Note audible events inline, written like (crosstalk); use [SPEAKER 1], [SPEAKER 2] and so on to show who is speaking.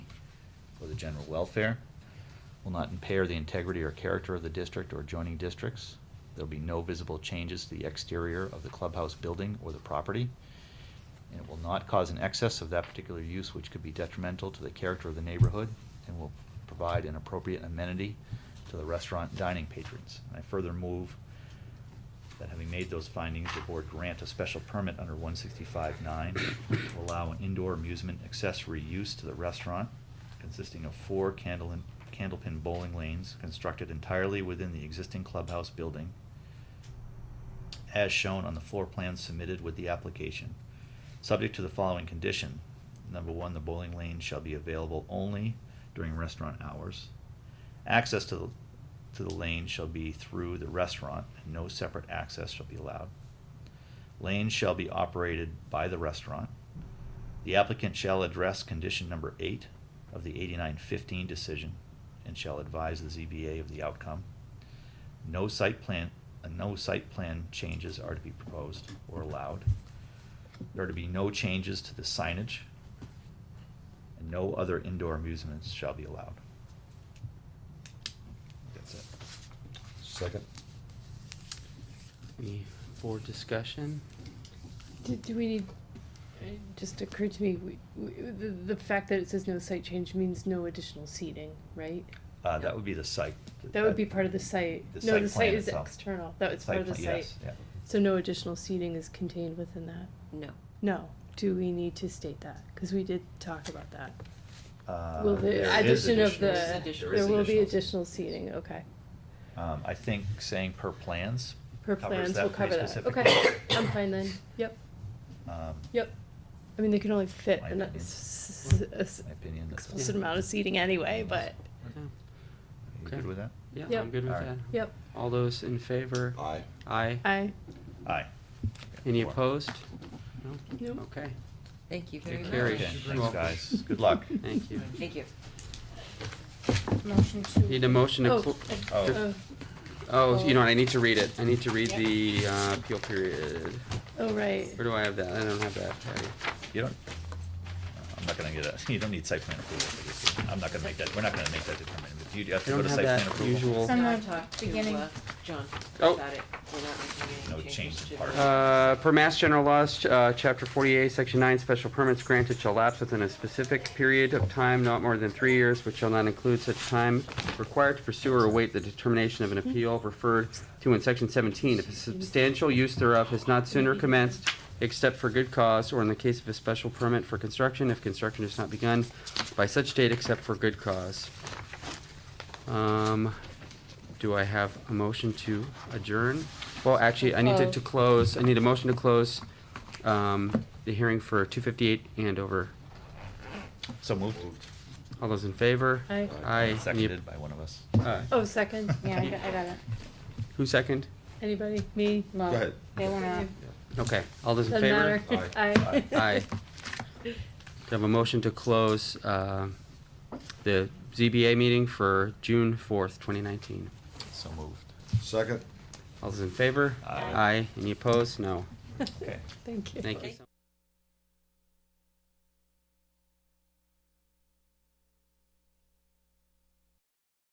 [SPEAKER 1] the general welfare, will not impair the integrity or character of the district or adjoining districts. There'll be no visible changes to the exterior of the clubhouse building or the property. And it will not cause an excess of that particular use which could be detrimental to the character of the neighborhood and will provide an appropriate amenity to the restaurant dining patrons. And I further move that having made those findings, the board grant a special permit under 165-9 to allow an indoor amusement accessory use to the restaurant consisting of four candle and- candlepin bowling lanes constructed entirely within the existing clubhouse building as shown on the floor plan submitted with the application, subject to the following condition. Number one, the bowling lane shall be available only during restaurant hours. Access to the, to the lane shall be through the restaurant, and no separate access shall be allowed. Lanes shall be operated by the restaurant. The applicant shall address condition number eight of the eighty-nine fifteen decision and shall advise the ZBA of the outcome. No site plan, uh, no site plan changes are to be proposed or allowed. There are to be no changes to the signage, and no other indoor amusements shall be allowed. That's it.
[SPEAKER 2] Second.
[SPEAKER 3] Any board discussion?
[SPEAKER 4] Do, do we need, it just occurred to me, we, we, the, the fact that it says no site change means no additional seating, right?
[SPEAKER 1] Uh, that would be the site.
[SPEAKER 4] That would be part of the site.
[SPEAKER 1] The
[SPEAKER 4] No,
[SPEAKER 1] site plan
[SPEAKER 4] the site is
[SPEAKER 1] itself.
[SPEAKER 4] external. That was part of the
[SPEAKER 1] plan,
[SPEAKER 4] site.
[SPEAKER 1] yes, yeah.
[SPEAKER 4] So no additional seating is contained within that?
[SPEAKER 5] No.
[SPEAKER 4] No. Do we need to state that? Cause we did talk about that.
[SPEAKER 1] Uh,
[SPEAKER 4] Will the
[SPEAKER 1] there is
[SPEAKER 4] addition of
[SPEAKER 1] additional-
[SPEAKER 4] the,
[SPEAKER 5] additional-
[SPEAKER 1] is
[SPEAKER 4] there will be
[SPEAKER 1] seating.
[SPEAKER 4] additional seating, okay.
[SPEAKER 1] Um, I think saying per plans.
[SPEAKER 4] Per
[SPEAKER 1] covers
[SPEAKER 4] plans,
[SPEAKER 1] that
[SPEAKER 4] we'll
[SPEAKER 1] pretty
[SPEAKER 4] cover that.
[SPEAKER 1] specifically.
[SPEAKER 4] Okay, (coughs) I'm fine then. Yep,
[SPEAKER 1] Um,
[SPEAKER 4] yep. I mean, they can only fit
[SPEAKER 1] My
[SPEAKER 4] an- a
[SPEAKER 1] opinion.
[SPEAKER 4] s- s- a s-
[SPEAKER 1] My opinion, that's-
[SPEAKER 4] explicit amount of seating anyway, but,
[SPEAKER 3] Yeah.
[SPEAKER 1] You
[SPEAKER 3] Okay.
[SPEAKER 1] good with that?
[SPEAKER 3] Yeah,
[SPEAKER 4] Yep.
[SPEAKER 3] I'm good with
[SPEAKER 1] Alright.
[SPEAKER 3] that.
[SPEAKER 4] yep,
[SPEAKER 3] All those in favor?
[SPEAKER 2] Aye.
[SPEAKER 3] Aye.
[SPEAKER 4] I,
[SPEAKER 1] Aye.
[SPEAKER 3] Any
[SPEAKER 1] Four.
[SPEAKER 3] opposed? No?
[SPEAKER 4] Nope.
[SPEAKER 3] Okay,
[SPEAKER 5] Thank you
[SPEAKER 3] It
[SPEAKER 5] very much.
[SPEAKER 3] carries.
[SPEAKER 1] Okay,
[SPEAKER 3] You're
[SPEAKER 1] Thanks,
[SPEAKER 3] welcome.
[SPEAKER 1] guys. Good luck.
[SPEAKER 3] (laughs) thank
[SPEAKER 4] (laughs)
[SPEAKER 3] you.
[SPEAKER 5] Thank you.
[SPEAKER 6] Motion to.
[SPEAKER 3] Need a motion to,
[SPEAKER 4] oh,
[SPEAKER 3] cl-
[SPEAKER 4] uh,
[SPEAKER 1] Oh.
[SPEAKER 4] oh,
[SPEAKER 3] oh, you know, what, I need to read it. I need to read
[SPEAKER 6] Yeah.
[SPEAKER 3] the uh, appeal period.
[SPEAKER 4] oh, right.
[SPEAKER 3] Where do I have that? I don't have that. I-
[SPEAKER 1] You don't, I'm not gonna get a, (laughs) you don't need site plan approval for this. I'm not gonna make that, we're not gonna make that determination. If you have
[SPEAKER 3] I
[SPEAKER 1] to go
[SPEAKER 3] don't
[SPEAKER 1] to
[SPEAKER 3] have
[SPEAKER 1] site plan
[SPEAKER 3] that
[SPEAKER 1] approval.
[SPEAKER 3] usual.
[SPEAKER 6] Some- From
[SPEAKER 5] John
[SPEAKER 6] the
[SPEAKER 5] talked to,
[SPEAKER 6] beginning.
[SPEAKER 5] uh, John
[SPEAKER 3] Oh.
[SPEAKER 5] about it. We're not making
[SPEAKER 1] No
[SPEAKER 5] any
[SPEAKER 1] change
[SPEAKER 5] changes
[SPEAKER 1] in
[SPEAKER 5] to
[SPEAKER 1] part.
[SPEAKER 5] the-
[SPEAKER 3] Uh, Per Mass General Laws, uh, Chapter 48, Section 9, special permits granted shall lapse within a specific period of time, not more than three years, which shall not include such time required to pursue or await the determination of an appeal referred to in Section 17. If a substantial use thereof has not sooner commenced, except for good cause, or in the case of a special permit for construction, if construction has not begun by such date except for good cause. Um, do I have a motion to adjourn? Well, actually, I need to, to close, I need a motion to cllose um, the hearing for two fifty-eight Andover.
[SPEAKER 1] So moved,
[SPEAKER 3] All those in favor?
[SPEAKER 4] Aye.
[SPEAKER 3] Aye. Any-
[SPEAKER 1] seconded by one of us.
[SPEAKER 3] uh,
[SPEAKER 4] Oh, second,
[SPEAKER 6] (laughs) Yeah, I got, I got it.
[SPEAKER 3] Who second?
[SPEAKER 4] anybody, me?
[SPEAKER 6] Well,
[SPEAKER 2] ahead.
[SPEAKER 6] They were not.
[SPEAKER 3] Okay, all those in
[SPEAKER 4] Doesn't
[SPEAKER 3] favor?
[SPEAKER 4] matter. Aye. (laughs)
[SPEAKER 3] Aye. Do I have a motion to close, uh, the ZBA meeting for June fourth, twenty nineteen?
[SPEAKER 1] So moved.
[SPEAKER 2] Second.
[SPEAKER 3] All those in favor?
[SPEAKER 1] Aye.
[SPEAKER 3] Aye. Any opposed? No.
[SPEAKER 1] Okay.
[SPEAKER 4] Thank you.
[SPEAKER 3] Thank you so much.